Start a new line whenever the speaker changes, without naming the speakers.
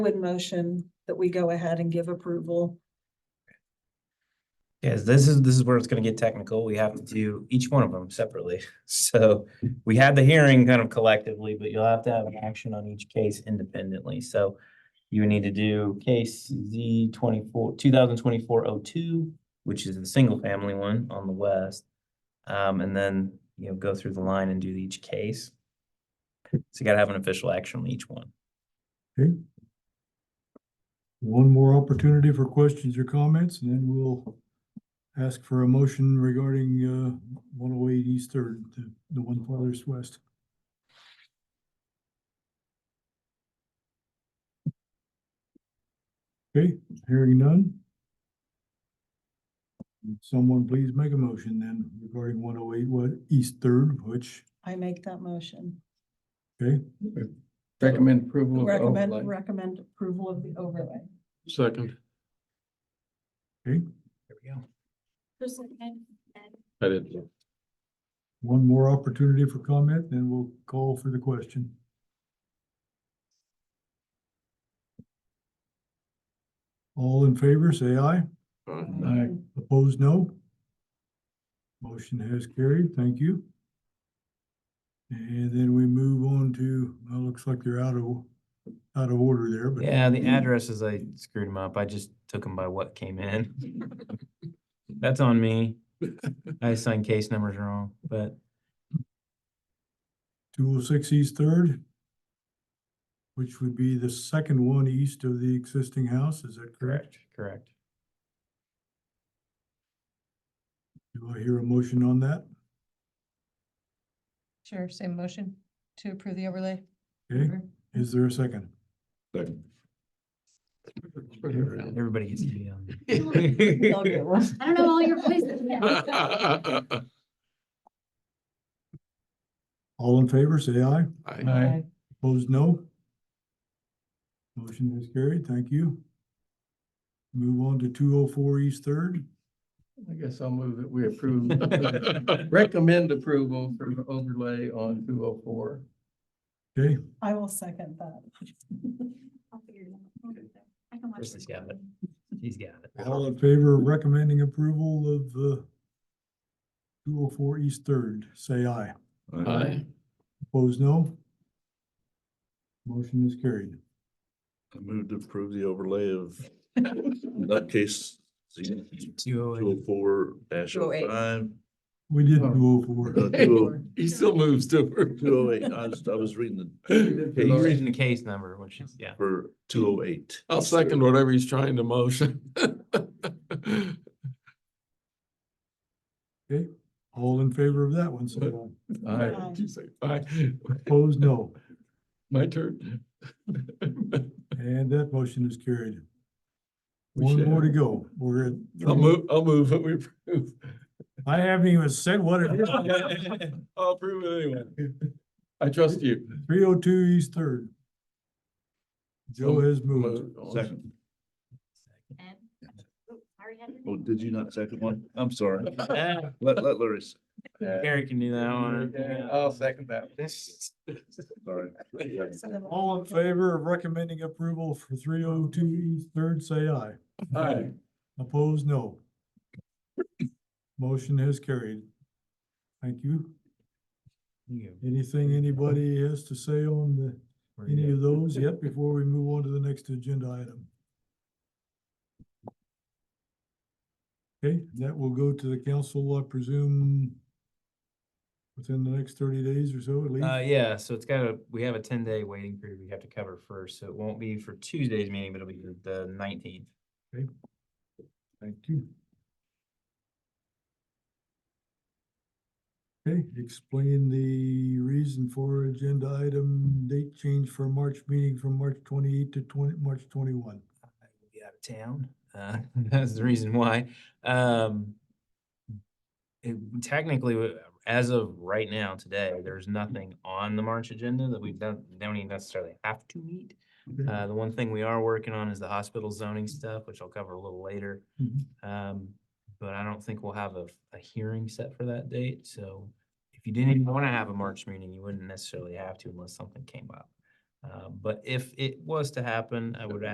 would motion that we go ahead and give approval.
Yes, this is, this is where it's gonna get technical. We have to do each one of them separately. So we had the hearing kind of collectively, but you'll have to have an action on each case independently. So you would need to do case Z twenty-four, two thousand twenty-four oh two, which is the single family one on the west. Um, and then, you know, go through the line and do each case. So you gotta have an official action on each one.
Okay. One more opportunity for questions or comments, and then we'll ask for a motion regarding uh one oh eight East Third, the the one farthest west. Okay, hearing none. Someone please make a motion then regarding one oh eight what East Third, which,
I make that motion.
okay,
Recommend approval of oh,
Recommend,
overlay.
recommend approval of the overlay.
Second.
okay.
There we go.
Just like that.
I didn't.
One more opportunity for comment, then we'll call for the question. All in favor, say aye.
Aye.
Opposed, no. Motion has carried. Thank you. And then we move on to, well, looks like they're out of, out of order there, but.
Yeah, the addresses, I screwed them up. I just took them by what came in. That's on me. I assigned case numbers wrong, but
Two oh six East Third, which would be the second one east of the existing house. Is that correct?
correct, correct.
Do I hear a motion on that?
Sure, same motion to approve the overlay.
Okay, is there a second?
Second.
Everybody gets to be on. there.
I'll get one.
I don't know all your places. yet.
All in favor, say aye.
Aye.
Opposed, no. Motion is carried. Thank you. Move on to two oh four East Third.
I guess I'll move it. We approve. Recommend approval for the overlay on two oh four.
Okay,
I will second that.
I'll figure it out. I can watch
Kristen's
this.
got it. He's got it.
all in favor of recommending approval of the two oh four East Third, say aye.
Aye.
Opposed, no. Motion is carried.
I move to approve the overlay of nutcase Z
Two oh
two oh
eight.
four dash oh five. Uh,
We did
Oh.
two oh four.
He still moves to.
Two oh eight, I was, I was reading
He's
Lord.
reading the case number, which is, yeah.
the, for two oh eight.
I'll second whatever he's trying to motion.
Okay, all in favor of that one, say aye.
Aye.
Aye.
You say aye.
Opposed, no.
My turn.
And that motion is carried.
We
One
should
more to
have-
go. We're at.
I'll move, I'll move what we approve.
I haven't even said what it is.
I'll approve it anyway. I trust you.
Three oh two East Third. Joe has moved.
Second.
And- Oop, I already had it.
Oh, did you not second one? I'm sorry.
Ah,
Let, let Larry, s-
Gary can do that one.
I'll second that.
sorry.
All in favor of recommending approval for three oh two East Third, say aye.
Aye.
Opposed, no. Motion has carried. Thank you.
You
Anything anybody has to say on the,
go.
any of those yet before we move on to the next agenda item? Okay, that will go to the council, I presume, within the next thirty days or so at least.
Uh, yeah, so it's got a, we have a ten day waiting period we have to cover first, so it won't be for Tuesday's meeting, but it'll be the nineteenth.
Thank you. Okay, explain the reason for agenda item date change for March meeting from March twenty-eight to twenty, March twenty-one.
I will be out of town. Uh, that's the reason why. Um, it, technically, w- as of right now, today, there's nothing on the March agenda that we don't, don't even necessarily have to meet.
Okay.
Uh, the one thing we are working on is the hospital zoning stuff, which I'll cover a little later.
Mhm.
Um, but I don't think we'll have a, a hearing set for that date, so if you didn't even want to have a March meeting, you wouldn't necessarily have to unless something came up. Uh, but if it was to happen, I would